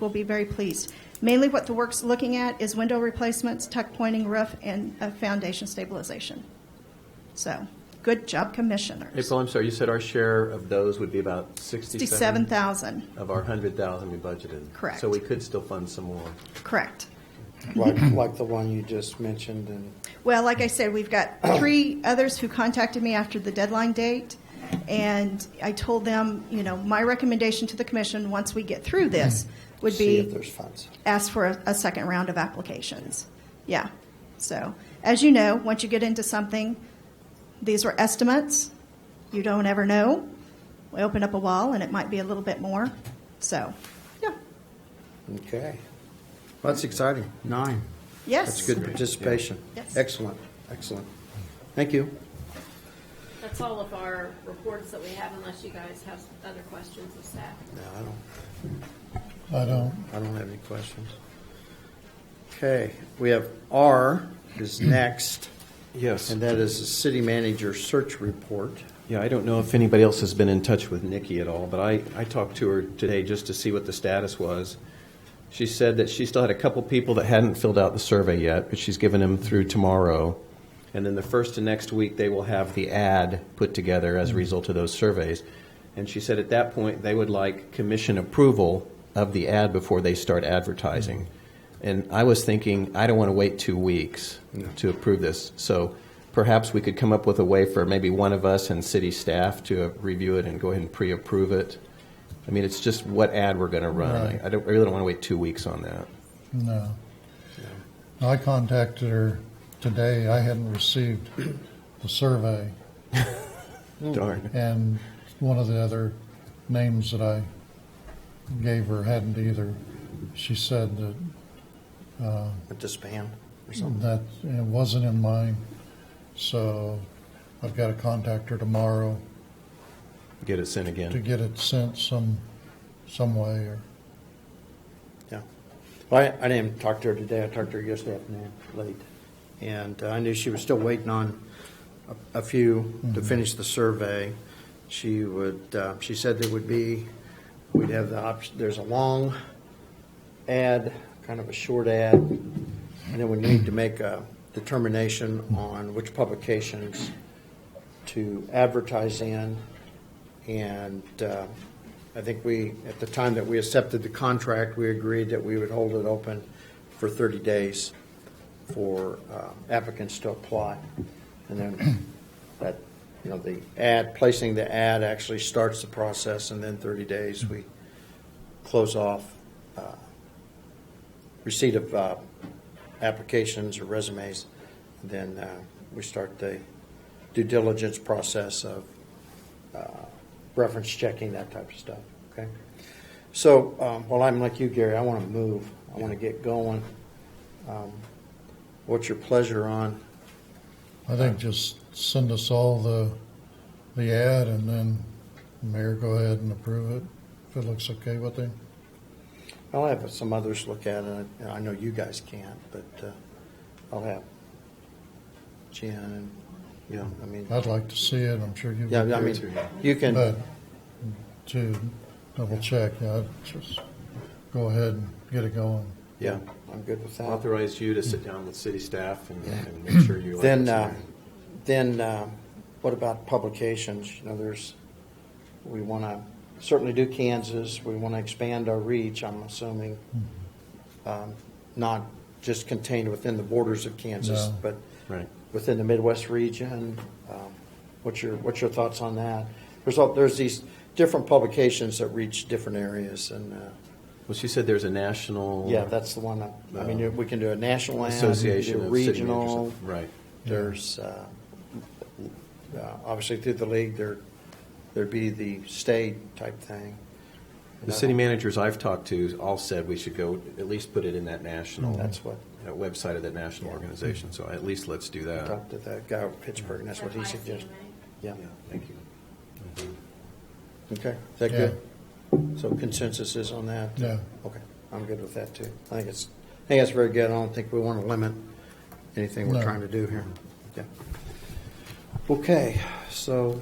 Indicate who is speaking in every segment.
Speaker 1: will be very pleased. Mainly what the work's looking at is window replacements, tuck pointing roof, and uh, foundation stabilization. So, good job, commissioners.
Speaker 2: April, I'm sorry, you said our share of those would be about 67?
Speaker 1: 67,000,
Speaker 2: Of our 100,000 we budgeted.
Speaker 1: Correct.
Speaker 2: So we could still fund some more.
Speaker 1: correct.
Speaker 3: like, like the one you just mentioned, and
Speaker 1: Well, like I said, we've got three others who contacted me after the deadline date, and I told them, you know, my recommendation to the commission, once we get through this, would
Speaker 3: Hmm. see if
Speaker 1: be
Speaker 3: there's funds.
Speaker 1: ask for a, a second round of applications. Yeah. So, as you know, once you get into something, these were estimates. You don't ever know. We open up a wall, and it might be a little bit more. So, yeah.
Speaker 3: Okay,
Speaker 4: That's exciting. Nine.
Speaker 1: Yes.
Speaker 3: that's good participation.
Speaker 1: Yes.
Speaker 3: Excellent, excellent. Thank you.
Speaker 5: That's all of our reports that we have unless you guys have other questions of staff.
Speaker 3: No, I don't,
Speaker 6: I don't.
Speaker 3: I don't have any questions. Okay, we have R is next,
Speaker 2: Yes.
Speaker 3: and that is the city manager search report.
Speaker 2: Yeah, I don't know if anybody else has been in touch with Nikki at all, but I, I talked to her today just to see what the status was. She said that she still had a couple people that hadn't filled out the survey yet, but she's given them through tomorrow. And then the first and next week, they will have the ad put together as a result of those surveys. And she said at that point, they would like commission approval of the ad before they start advertising. And I was thinking, I don't want to wait two weeks to approve this. So perhaps we could come up with a way for maybe one of us and city staff to uh, review it and go ahead and pre-approve it. I mean, it's just what ad we're going to run.
Speaker 6: Right.
Speaker 2: I I don't, I really don't want to wait two weeks on that.
Speaker 6: No. I contacted her today. I hadn't received the survey,
Speaker 3: Hmm.
Speaker 2: Darn.
Speaker 6: and one of the other names that I gave her hadn't either. She said that
Speaker 3: At this band or something.
Speaker 6: that it wasn't in mine, so I've got to contact her tomorrow
Speaker 2: Get it sent
Speaker 6: to
Speaker 2: again.
Speaker 6: get it sent some some way. Or
Speaker 3: Yeah. Well, I, I didn't talk to her today. I talked to her yesterday afternoon, late. And uh, I knew she was still waiting on a, a few to finish the survey. She would, uh, she said there would be, we'd have the option, there's a long ad, kind of a short ad, and then we need to make a determination on which publications to advertise in. And uh, I think we, at the time that we accepted the contract, we agreed that we would hold it open for 30 days for uh, applicants to apply. And then that, you know, the ad, placing the ad actually starts the process, and then 30 days, we close off uh, receipt of uh, applications or resumes, then uh, we start the due diligence process of uh, reference checking, that type of stuff, okay? So, um, well, I'm like you, Gary, I want to move, I want to get going. Um, What's your pleasure on?
Speaker 6: I think just send us all the the ad, and then the mayor go ahead and approve it if it looks okay with him.
Speaker 3: I'll have some others look at it, and I know you guys can't, but uh, I'll have Jen, and, you know, I mean,
Speaker 6: I'd like to see it, I'm sure you
Speaker 3: yeah, I
Speaker 6: would.
Speaker 3: mean, you can.
Speaker 6: But to double check, yeah, I'd just go ahead and get it going.
Speaker 3: Yeah, I'm good with that.
Speaker 2: Authorize you to sit down with city staff and, and make sure you.
Speaker 3: Then, uh, then uh, what about publications? You know, there's, we want to certainly do Kansas, we want to expand our reach, I'm assuming,
Speaker 2: Hmm.
Speaker 3: um, not just contained within the borders of Kansas,
Speaker 6: No.
Speaker 3: but
Speaker 2: Right.
Speaker 3: within the Midwest region. Um, What's your, what's your thoughts on that? There's, all there's these different publications that reach different areas, and, uh,
Speaker 2: Well, she said there's a national.
Speaker 3: yeah, that's the one, that- I mean, we can do a national ad, we can do
Speaker 2: Association of city managers.
Speaker 3: regional.
Speaker 2: Right.
Speaker 3: There's, uh, uh, obviously through the league, there, there'd be the state type thing.
Speaker 2: The city managers I've talked to all said we should go, at least put it in that national.
Speaker 3: That's what-
Speaker 2: that website of that national organization, so at least let's do
Speaker 3: I
Speaker 2: that.
Speaker 3: Talked to that guy with Pittsburgh, and that's what he
Speaker 5: Or
Speaker 3: suggested.
Speaker 5: ICMA.
Speaker 3: Yeah,
Speaker 2: Yeah, Thank you.
Speaker 3: okay, is that
Speaker 6: Yeah.
Speaker 3: good? So consensus is on that?
Speaker 6: Yeah.
Speaker 3: Okay, I'm good with that, too. I think it's, I think it's very good, I don't think we want to limit anything we're
Speaker 6: No.
Speaker 3: trying to do here. Yeah. Okay, so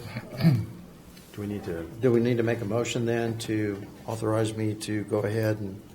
Speaker 2: Do we need to,
Speaker 3: Do we need to make a motion then to authorize me to go ahead and